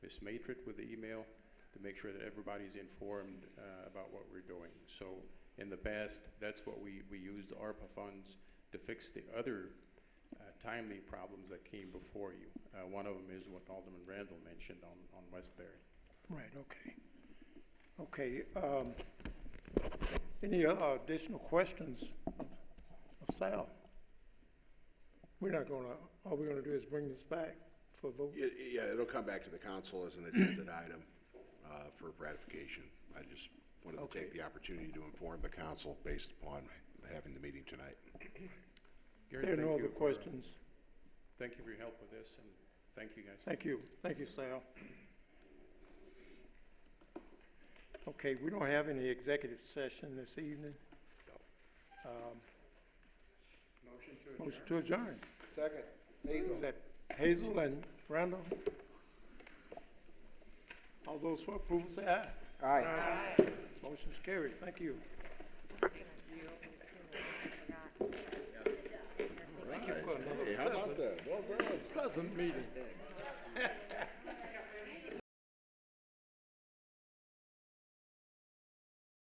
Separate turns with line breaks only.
Ms. Madrid with the email to make sure that everybody's informed uh, about what we're doing. So in the past, that's what we, we used ARPA funds to fix the other uh, timely problems that came before you. Uh, One of them is what Alderman Randall mentioned on, on Westbury.
Right, okay. Okay, um, any uh, additional questions of of Sal? We're not gonna, all we're gonna do is bring this back for a vote.
Yeah, yeah, it'll come back to the council as an agenda item uh, for ratification. I just wanted to
Okay.
take the opportunity to inform the council based upon having the meeting tonight.
Gary,
There are no
thank
other
you for-
questions.
Thank you for your help with this, and thank you guys.
Thank you, thank you, Sal. Okay, we don't have any executive session this evening. Um,
Motion to
Motion to adjourn.
Second,
Is
Hazel.
that Hazel and Randall? All those for approval say aye.
Aye.
Motion's carried, thank you. Thank you for another
Hey, how about that? Well done.
pleasant meeting.